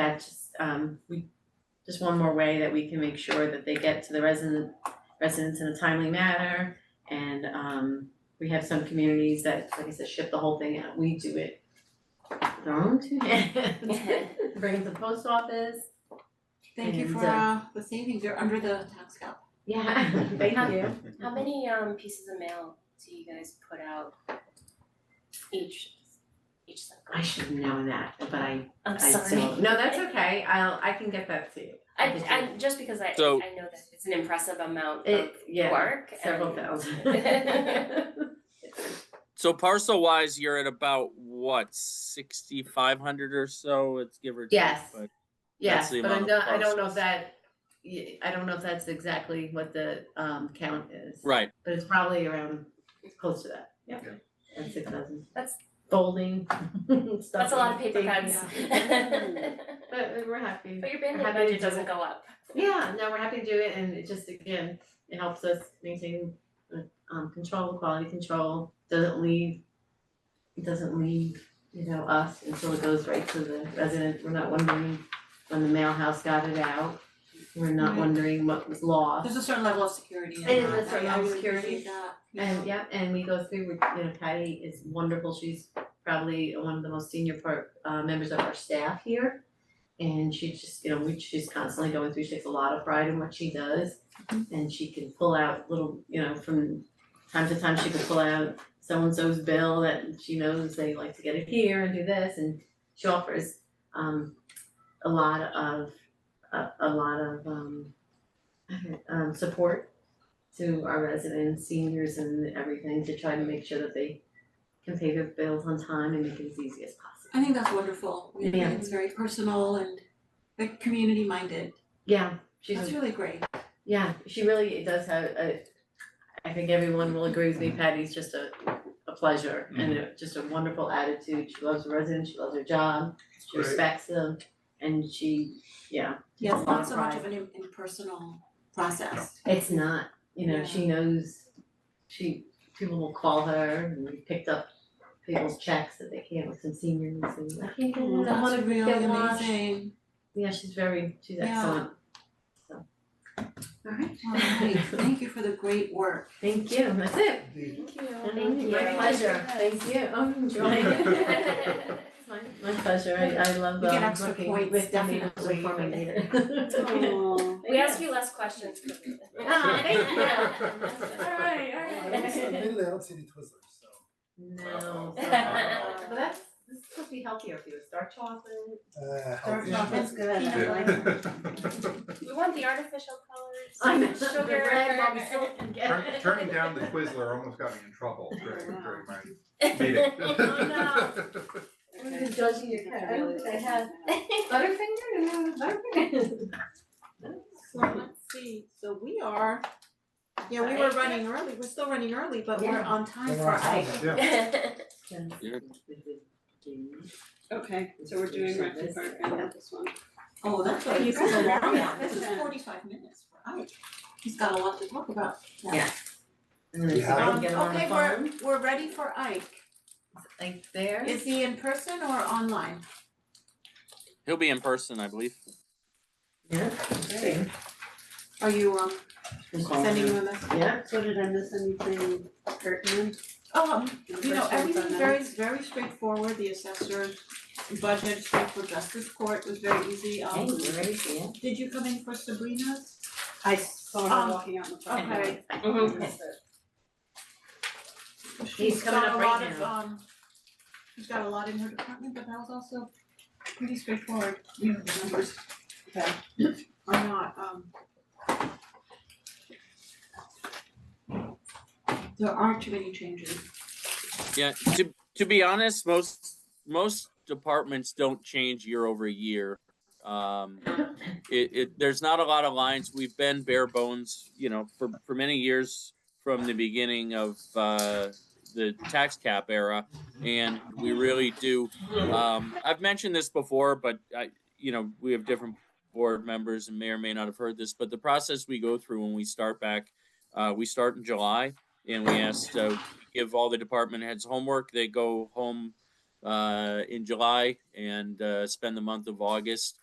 that's um we just one more way that we can make sure that they get to the resident residents in a timely manner. And um we have some communities that, like I said, ship the whole thing out, we do it with our own two hands. Bring it to the post office, Thank you And, for uh, uh the savings, you're under the tax cap. yeah, thank you. How many um pieces of mail do you guys put out each each I cycle? should have known that, but I I'm I sorry. don't, no, that's okay, I'll I can get that to you. I I just because I I So- know that it's an impressive amount of It, yeah, work and several thousand. So parcel wise, you're at about what, sixty five hundred or so, it's give or take. Yes. but- Yes, the but I amount don't, of I don't know if parcels. that, y- I don't know if that's exactly what the um count is. Right, But it's probably around, it's close to that, yeah. Yeah. And six thousand. That's- Folding, stuff. that's a lot of paper taking- cuts. But we're happy. But your bandwidth How do you budget do doesn't it? go up. Yeah, no, we're happy to do it and it just, again, it helps us maintain uh, um control, quality control, doesn't leave. It doesn't leave, you know, us until it goes right to the resident, we're not wondering when the mail house got it out. We're not Right. wondering what was lost. There's a certain level of security in that, It is a certain I- I level of really security. appreciate that, you know. And yeah, and we go through, with you know, Patty is wonderful, she's probably one of the most senior part, uh, members of our staff here. And she just, you know, we, she's constantly going through, she takes a lot of pride in what she does. Mm-hmm. And she can pull out little, you know, from time to time, she can pull out so-and-so's bill that she knows they like to get it here and do this, and she offers, um, a lot of, a, a lot of, um, I don't- um, support to our residents, seniors and everything to try to make sure that they can pay their bills on time and make it as easy as possible. I think that's wonderful, I think Yeah. it's very personal and like community minded, Yeah, she's, that's a- really great. yeah, she really does have a, I think everyone will agree with me, Patty's just a, a pleasure and a- just a wonderful attitude. She loves her residents, she loves her job, she Great. respects them and she, yeah, Yeah, it's lot of not so much pride. of an im- impersonal process. It's not, you know, Yeah. she knows, she, people will call her and we picked up people's checks that they can't with some seniors and I can't get it, I wanna That's really get washed. amazing. Yeah, she's very, she's Yeah. excellent. So, alright. Alright, thank you for the great work. Thank you, that's it. Thank you. Mm, My pleasure, thank you, I'm enjoying it. It's My, my pleasure, I, I love, We get um, extra working points, with Debbie as a definitely. former leader. We ask you less questions. Ah, thank you. Alright, I was a alright. little outside it was so. No, so- But but that's, this is supposed to be healthier for you, dark chocolate. Uh, how Dark did chocolate. you- That's good, I like We want the artificial colors. I know, the Sugar. red, Bobby Silk, Turn, yeah. turning down the Twizzler almost got me in trouble during, during my meeting. Oh, I'm just judging your cat, I don't think I have Butterfinger, Butterfinger. So let's see, so we are, yeah, we were running early, we're still running early, but we're on time We're for on time, I, yeah. Yeah. Okay, so we're doing Rectory Park and not this one. oh, that's what you This is said, a long yeah, one. this is forty-five minutes for I. He's got a lot to talk about. And then Yeah. someone Um, get on the okay, phone, we're, we're ready for Ike. like there. Is he in person or online? he'll be in person, I believe. Yeah. Great. Are you um sending him a message? Yeah, So did I miss anything pertinent? Oh, um, The you know, first one's on everything's that. very, very straightforward, the assessor's budget, straight for justice court was very easy, um, thank you, right, yeah. did you come in for Sabrina's? I saw Um, her walking out in the park. Okay. Mhm. She's coming got up a right lot of, now. um, she's got a lot in her department, but that was also pretty straightforward, the numbers. Okay. Are not, um. There aren't too many changes. Yeah, to to be honest, most most departments don't change year over year. Um, it, it there's not a lot of lines. We've been bare bones, you know, for for many years from the beginning of uh, the tax cap era, and we really do. Um, I've mentioned this before, but I, you know, we have different board members and may or may not have heard this, but the process we go through when we start back, uh, we start in July and we asked uh, give all the department heads homework. They go home uh, in July and uh, spend the month of August